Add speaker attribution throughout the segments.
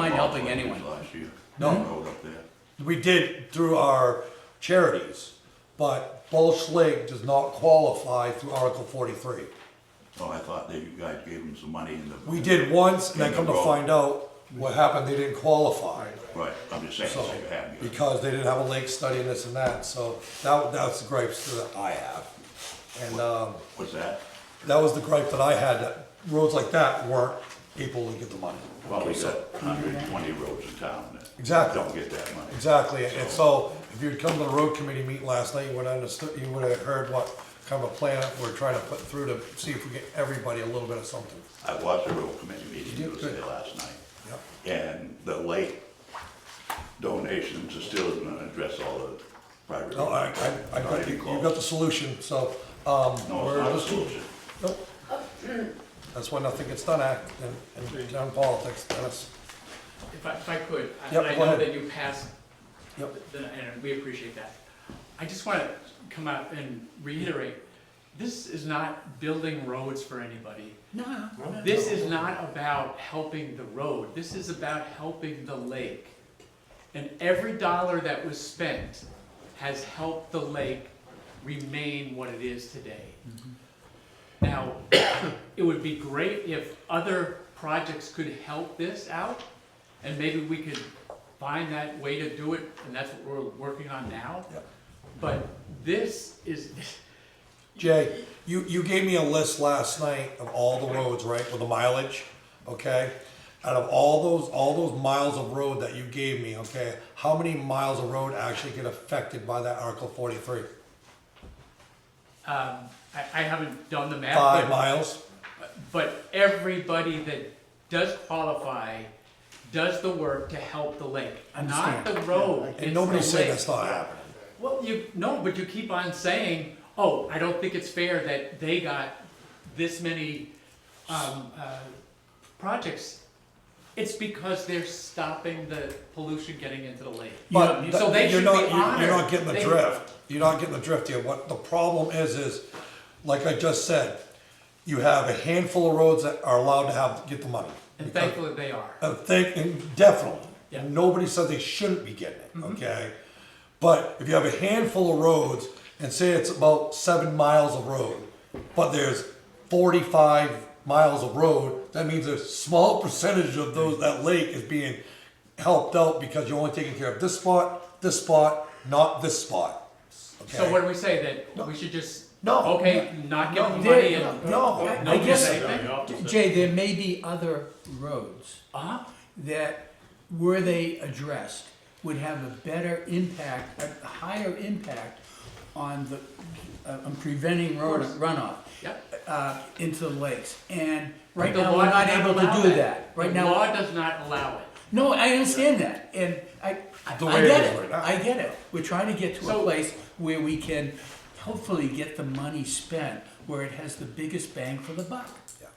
Speaker 1: helping
Speaker 2: like
Speaker 1: anyone.
Speaker 2: this Last year.
Speaker 3: No.
Speaker 2: That Road up there.
Speaker 3: We did through our charities, but Bulch Lake does not qualify through Article forty-three.
Speaker 2: Oh, I thought that you guys gave them some money in the.
Speaker 3: We did once, and then come to find out what happened, they didn't qualify.
Speaker 2: Right, I'm just saying,
Speaker 3: So,
Speaker 2: so you have. your-
Speaker 3: because they didn't have a lake study and this and that, so that, that's the gripes that I have. And, um,
Speaker 2: What's that?
Speaker 3: that was the gripe that I had, that roads like that weren't able to get the money.
Speaker 2: Well, we got hundred and twenty roads in town that.
Speaker 3: Exactly.
Speaker 2: Don't get that money.
Speaker 3: Exactly, and so if you'd come to the road committee meeting last night, you would understood, you would have heard what kind of a plan we're trying to put through to see if we get everybody a little bit of something.
Speaker 2: I watched the road committee meeting,
Speaker 3: You
Speaker 2: it
Speaker 3: did
Speaker 2: was
Speaker 3: good.
Speaker 2: there last night.
Speaker 3: Yep.
Speaker 2: And the late donations are still gonna address all the private.
Speaker 3: No, I,
Speaker 2: roads.
Speaker 3: I, I
Speaker 2: Not
Speaker 3: got, the-
Speaker 2: even
Speaker 3: you
Speaker 2: close.
Speaker 3: got the solution, so,
Speaker 2: No,
Speaker 3: um,
Speaker 2: it's
Speaker 3: we're
Speaker 2: not a
Speaker 3: just-
Speaker 2: solution.
Speaker 3: Nope. That's why nothing gets done, act, in, in town politics, that's,
Speaker 4: If I, if I could, I-
Speaker 3: Yep,
Speaker 4: I
Speaker 3: go
Speaker 4: know
Speaker 3: ahead.
Speaker 4: that you passed,
Speaker 3: Yep.
Speaker 4: the- and we appreciate that. I just want to come out and reiterate, this is not building roads for anybody.
Speaker 1: No.
Speaker 4: This is not about helping the road, this is about helping the lake. And every dollar that was spent has helped the lake remain what it is today. Now, it would be great if other projects could help this out, and maybe we could find that way to do it, and that's what we're working on now.
Speaker 3: Yep.
Speaker 4: But this is,
Speaker 3: Jay, you, you gave me a list last night of all the roads, right, with the mileage, okay? Out of all those, all those miles of road that you gave me, okay, how many miles of road actually get affected by that Article forty-three?
Speaker 4: um, I, I haven't done the math.
Speaker 3: Five
Speaker 4: but-
Speaker 3: miles?
Speaker 4: But everybody that does qualify does the work to help the lake, not
Speaker 1: Understand.
Speaker 4: the road.
Speaker 3: And
Speaker 4: it's
Speaker 3: nobody's
Speaker 4: the
Speaker 3: saying
Speaker 4: lake.
Speaker 3: that's not happening.
Speaker 4: Well, you, no, but you keep on saying, oh, I don't think it's fair that they got this many, um, uh, projects. It's because they're stopping the pollution getting into the lake.
Speaker 3: But
Speaker 4: So
Speaker 3: th-
Speaker 4: they
Speaker 3: you're
Speaker 4: should
Speaker 3: not,
Speaker 4: be
Speaker 3: you're- you're not
Speaker 4: honored.
Speaker 3: getting the
Speaker 4: They-
Speaker 3: drift. You're not getting the drift here. What the problem is, is, like I just said, you have a handful of roads that are allowed to have, get the money.
Speaker 4: And
Speaker 3: Because-
Speaker 4: thankfully they are.
Speaker 3: I think, Uh, and definitely,
Speaker 4: Yeah. Mm-hmm.
Speaker 3: nobody said they shouldn't be getting it, okay? But if you have a handful of roads, and say it's about seven miles of road, but there's forty-five miles of road, that means a small percentage of those, that lake is being helped out because you're only taking care of this spot, this spot, not this spot.
Speaker 4: So
Speaker 3: okay?
Speaker 4: what do we say, that we should just,
Speaker 3: No,
Speaker 4: okay, not give them
Speaker 1: no,
Speaker 4: money
Speaker 1: they-
Speaker 4: and?
Speaker 3: No,
Speaker 1: I
Speaker 4: No,
Speaker 1: guess-
Speaker 4: say anything?
Speaker 1: Jay, there may be other roads
Speaker 4: Uh-huh.
Speaker 1: that, were they addressed, would have a better impact, a higher impact on the, uh, on preventing road runoff
Speaker 4: Yep.
Speaker 1: uh, into the lakes. And right
Speaker 4: But the
Speaker 1: now,
Speaker 4: law
Speaker 1: we're not
Speaker 4: does
Speaker 1: able
Speaker 4: allow
Speaker 1: to do that. Right
Speaker 4: The
Speaker 1: now,
Speaker 4: law does not allow it.
Speaker 1: no, I understand that, and I, I
Speaker 3: The
Speaker 1: I
Speaker 3: way it
Speaker 1: get
Speaker 3: is right
Speaker 1: it,
Speaker 3: now.
Speaker 1: I get it. We're trying to get to a
Speaker 4: So-
Speaker 1: place where we can hopefully get the money spent, where it has the biggest bang for the buck.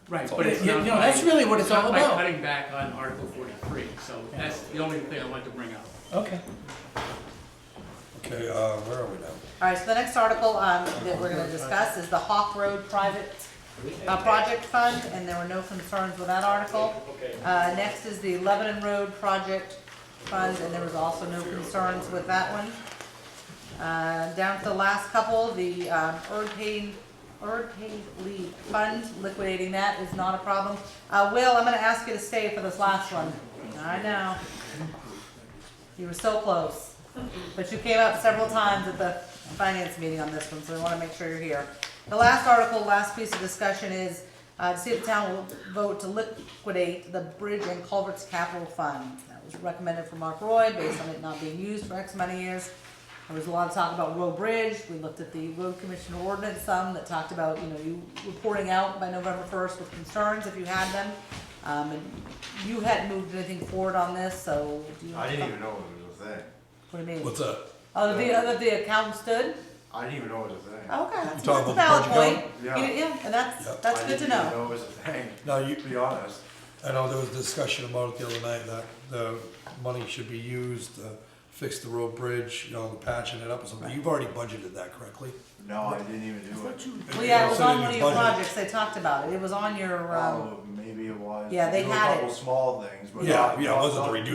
Speaker 4: Right,
Speaker 3: So-
Speaker 4: but it's
Speaker 1: Yeah,
Speaker 4: not.
Speaker 1: no, that's
Speaker 4: by-
Speaker 1: really what it's all
Speaker 4: It's
Speaker 1: about.
Speaker 4: not by cutting back on Article forty-three, so that's the only thing I wanted to bring up.
Speaker 1: Okay.
Speaker 3: okay, uh, where are we now?
Speaker 5: All right, so the next article um, that we're gonna discuss is the Hawk Road Private uh, Project Fund, and there were no concerns with that article. Uh, Next is the Lebanon Road Project Fund, and there was also no concerns with that one. Uh, Down to the last couple, the um, Erdpain, Erdpain League Fund, liquidating that is not a problem. Uh, Will, I'm gonna ask you to stay for this last one. I know. You were so close. But you came up several times at the finance meeting on this one, so we wanna make sure you're here. The last article, last piece of discussion is, uh, to see if the town will vote to liquidate the bridge and culverts capital fund. That was recommended from Mark Roy, based on it not being used for X amount of years. There was a lot of talk about road bridge, we looked at the road commissioner ordinance some that talked about, you know, you reporting out by November first with concerns if you had them. Um, and you hadn't moved anything forward on this, so do you?
Speaker 6: I didn't even know it was a thing.
Speaker 5: What do you mean?
Speaker 3: What's up?
Speaker 5: Oh, the, the, the account stood? Oh,
Speaker 6: I didn't even know it was a thing.
Speaker 5: Okay, that's,
Speaker 3: You talking
Speaker 5: that's
Speaker 3: about
Speaker 5: a valid
Speaker 3: the
Speaker 5: point.
Speaker 3: budget
Speaker 6: account?
Speaker 5: You- Yeah, and
Speaker 3: Yeah.
Speaker 5: that's, that's
Speaker 6: I
Speaker 5: good to
Speaker 6: didn't
Speaker 5: know.
Speaker 6: even know it was a thing,
Speaker 3: Now, you,
Speaker 6: to be honest.
Speaker 3: I know there was discussion about it the other night, that the money should be used to fix the road bridge, you know, patching it up or something. You've already budgeted that correctly.
Speaker 6: No, I didn't even do it.
Speaker 5: Well, yeah, it was
Speaker 3: It's in
Speaker 5: on one of
Speaker 3: your
Speaker 5: your
Speaker 3: budget.
Speaker 5: projects, they talked about it, it was on your, um.
Speaker 6: Oh, maybe it was.
Speaker 5: Yeah, they
Speaker 6: There were
Speaker 5: had
Speaker 6: A couple
Speaker 5: it.
Speaker 6: small things, but.
Speaker 3: Yeah,
Speaker 6: not-
Speaker 3: yeah, it wasn't
Speaker 6: not-
Speaker 3: to redo